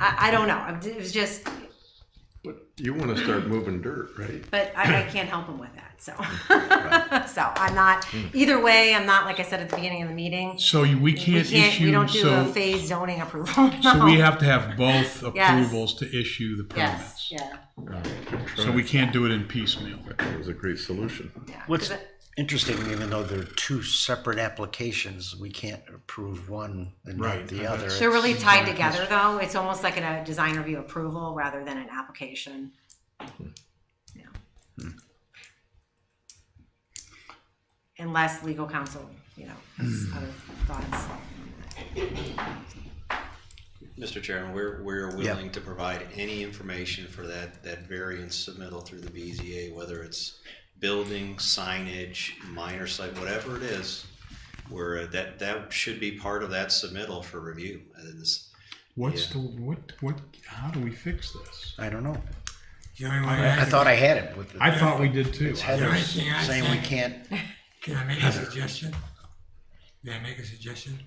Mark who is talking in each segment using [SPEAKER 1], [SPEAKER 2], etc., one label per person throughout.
[SPEAKER 1] I, I don't know. It was just,
[SPEAKER 2] But you want to start moving dirt, right?
[SPEAKER 1] but I, I can't help him with that. So, so I'm not. Either way, I'm not. Like I said at the beginning of the meeting,
[SPEAKER 3] So you- we
[SPEAKER 1] we
[SPEAKER 3] can't
[SPEAKER 1] can't. we
[SPEAKER 3] issue,
[SPEAKER 1] don't do a
[SPEAKER 3] so,
[SPEAKER 1] phase zoning approval.
[SPEAKER 3] so
[SPEAKER 1] No.
[SPEAKER 3] we have to have both
[SPEAKER 1] Yes.
[SPEAKER 3] approvals to issue the
[SPEAKER 1] Yes.
[SPEAKER 3] permits.
[SPEAKER 1] Yeah.
[SPEAKER 3] So we can't do it in piecemeal.
[SPEAKER 2] That was a great solution.
[SPEAKER 1] yeah.
[SPEAKER 4] What's
[SPEAKER 1] 'Cause it-
[SPEAKER 4] interesting, even though they're two separate applications, we can't approve one and
[SPEAKER 3] Right,
[SPEAKER 4] not the
[SPEAKER 3] I
[SPEAKER 4] other.
[SPEAKER 3] bet.
[SPEAKER 1] They're
[SPEAKER 4] It's-
[SPEAKER 1] really tied together, though. It's almost like a design review approval rather than an application. Yeah. Unless legal counsel, you know, has other thoughts.
[SPEAKER 5] Mr. Chairman, we're, we're
[SPEAKER 4] Yeah.
[SPEAKER 5] willing to provide any information for that, that variance submittal through the BZA, whether it's building, signage, minor site, whatever it is, where that, that should be part of that submittal for review. And this,
[SPEAKER 3] What's
[SPEAKER 5] Yeah.
[SPEAKER 3] the, what, what, how do we fix this?
[SPEAKER 4] I don't know.
[SPEAKER 6] The only way
[SPEAKER 4] I
[SPEAKER 6] I,
[SPEAKER 4] thought I had it with the.
[SPEAKER 3] I thought we did too.
[SPEAKER 4] It's
[SPEAKER 6] The
[SPEAKER 4] Heather
[SPEAKER 6] only thing I
[SPEAKER 4] saying we
[SPEAKER 6] think-
[SPEAKER 4] can't,
[SPEAKER 6] can I make a suggestion? May I make a suggestion?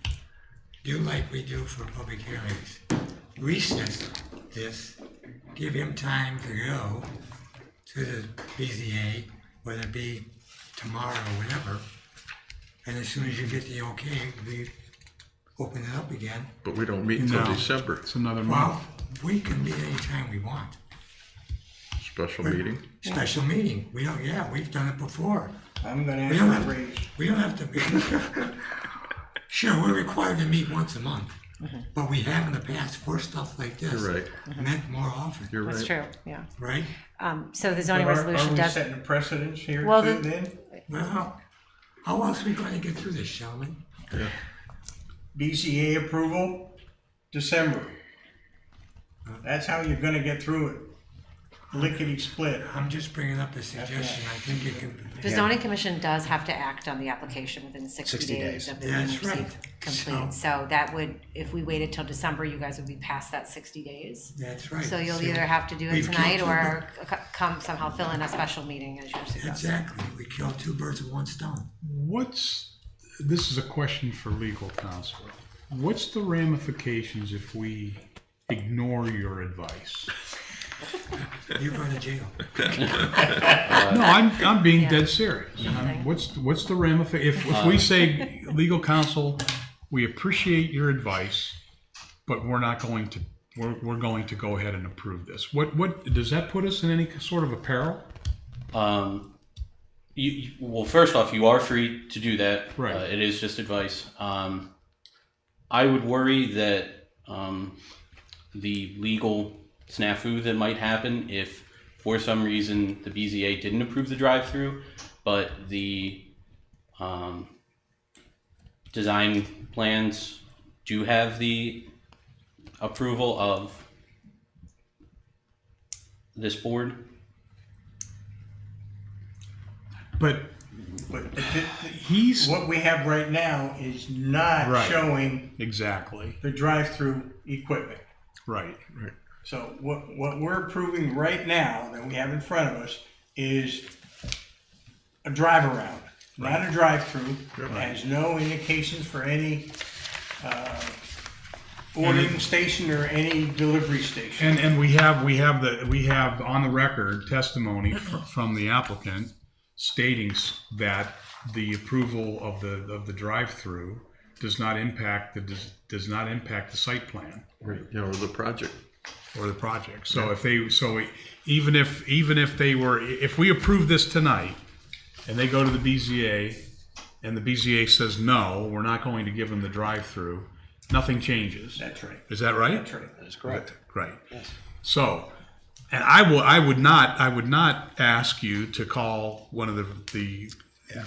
[SPEAKER 6] Do like we do for public hearings. Recess this, give him time to go to the BZA, whether it be tomorrow or whatever. And as soon as you get the okay, we open it up again.
[SPEAKER 2] But we don't meet until
[SPEAKER 3] No.
[SPEAKER 2] December.
[SPEAKER 3] It's another month.
[SPEAKER 6] Well, we can meet anytime we want.
[SPEAKER 2] Special meeting.
[SPEAKER 6] Special meeting. We don't, yeah, we've done it before.
[SPEAKER 7] I'm gonna
[SPEAKER 6] We don't
[SPEAKER 7] ask for a
[SPEAKER 6] have,
[SPEAKER 7] raise.
[SPEAKER 6] we don't have to be. Sure, we're required to meet once a month, but we have in the past for stuff like this.
[SPEAKER 2] You're right.
[SPEAKER 6] Meant more often,
[SPEAKER 2] You're right.
[SPEAKER 1] true, yeah.
[SPEAKER 6] right?
[SPEAKER 1] Um, so the
[SPEAKER 7] But
[SPEAKER 1] zoning
[SPEAKER 7] are- Are
[SPEAKER 1] resolution
[SPEAKER 7] we
[SPEAKER 1] does,
[SPEAKER 7] setting a precedence here
[SPEAKER 1] Well,
[SPEAKER 7] too
[SPEAKER 1] the-
[SPEAKER 7] then?
[SPEAKER 6] Well, how else are we gonna get through this, gentlemen?
[SPEAKER 7] BCA approval, December. That's how you're gonna get through it. Lickety split.
[SPEAKER 6] I'm just bringing up a suggestion. I think it can,
[SPEAKER 1] the zoning commission does have to act on the application within sixty
[SPEAKER 4] 60
[SPEAKER 1] days
[SPEAKER 4] days.
[SPEAKER 1] of the
[SPEAKER 6] That's
[SPEAKER 1] meeting receipt
[SPEAKER 6] right.
[SPEAKER 1] complete. So that would, if we waited till December, you guys would be past that sixty days.
[SPEAKER 6] that's right.
[SPEAKER 1] So you'll
[SPEAKER 6] See,
[SPEAKER 1] either have to do it
[SPEAKER 6] we've killed
[SPEAKER 1] tonight
[SPEAKER 6] two
[SPEAKER 1] or c- come somehow fill in a special meeting as you're
[SPEAKER 6] birds-
[SPEAKER 1] suggesting.
[SPEAKER 6] Exactly. We killed two birds with one stone.
[SPEAKER 3] What's, this is a question for legal counsel. What's the ramifications if we ignore your advice?
[SPEAKER 6] You're going to jail.
[SPEAKER 3] No, I'm, I'm being dead serious. I'm- What's, what's the ramification, if, if we say, legal counsel, we appreciate your advice, but we're not going to, we're, we're going to go ahead and approve this. What, what, does that put us in any sort of apparel?
[SPEAKER 8] Um, you, you, well, first off, you are free to do that.
[SPEAKER 3] Right.
[SPEAKER 8] Uh, it is just advice. Um, I would worry that um, the legal snafu that might happen if, for some reason, the BZA didn't approve the drive-through, but the um, design plans do have the approval of this board.
[SPEAKER 3] But
[SPEAKER 7] But th- th-
[SPEAKER 3] he's,
[SPEAKER 7] what we have right now is not
[SPEAKER 3] Right.
[SPEAKER 7] showing
[SPEAKER 3] exactly,
[SPEAKER 7] the drive-through equipment.
[SPEAKER 3] right.
[SPEAKER 7] So what, what we're approving right now that we have in front of us is a drive around, not a drive-through. It Has no indications for any, uh, ordering station or any delivery station.
[SPEAKER 3] And, and we have, we have the, we have on the record testimony fr- from the applicant stating s- that the approval of the, of the drive-through does not impact the, des- does not impact the site plan
[SPEAKER 2] You know, the project.
[SPEAKER 3] or the project. So if they, so e- even if, even if they were, if we approve this tonight and they go to the BZA and the BZA says, no, we're not going to give them the drive-through, nothing changes.
[SPEAKER 7] That's right,
[SPEAKER 3] Is that right?
[SPEAKER 7] that's right.
[SPEAKER 5] that's correct.
[SPEAKER 3] Right. So, and I will, I would not, I would not ask you to call one of the, the,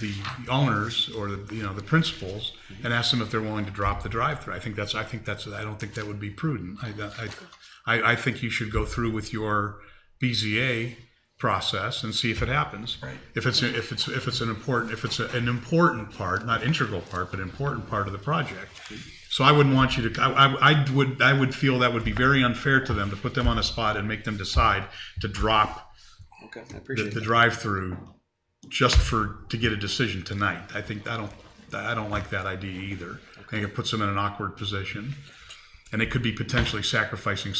[SPEAKER 3] the owners or the, you know, the principals and ask them if they're willing to drop the drive-through. I think that's, I think that's, I don't think that would be prudent. I, I, I, I think you should go through with your BZA process and see if it happens.
[SPEAKER 7] Right.
[SPEAKER 3] If it's, if it's, if it's an important, if it's an important part, not integral part, but important part of the project. So I wouldn't want you to. I, I, I would. I would feel that would be very unfair to them to put them on a spot and make them decide to drop
[SPEAKER 5] Okay, I
[SPEAKER 3] the,
[SPEAKER 5] appreciate
[SPEAKER 3] the
[SPEAKER 5] it.
[SPEAKER 3] drive-through just for to get a decision tonight. I think I don't. I don't like that idea either. I think it puts them in an awkward position, and it could be potentially sacrificing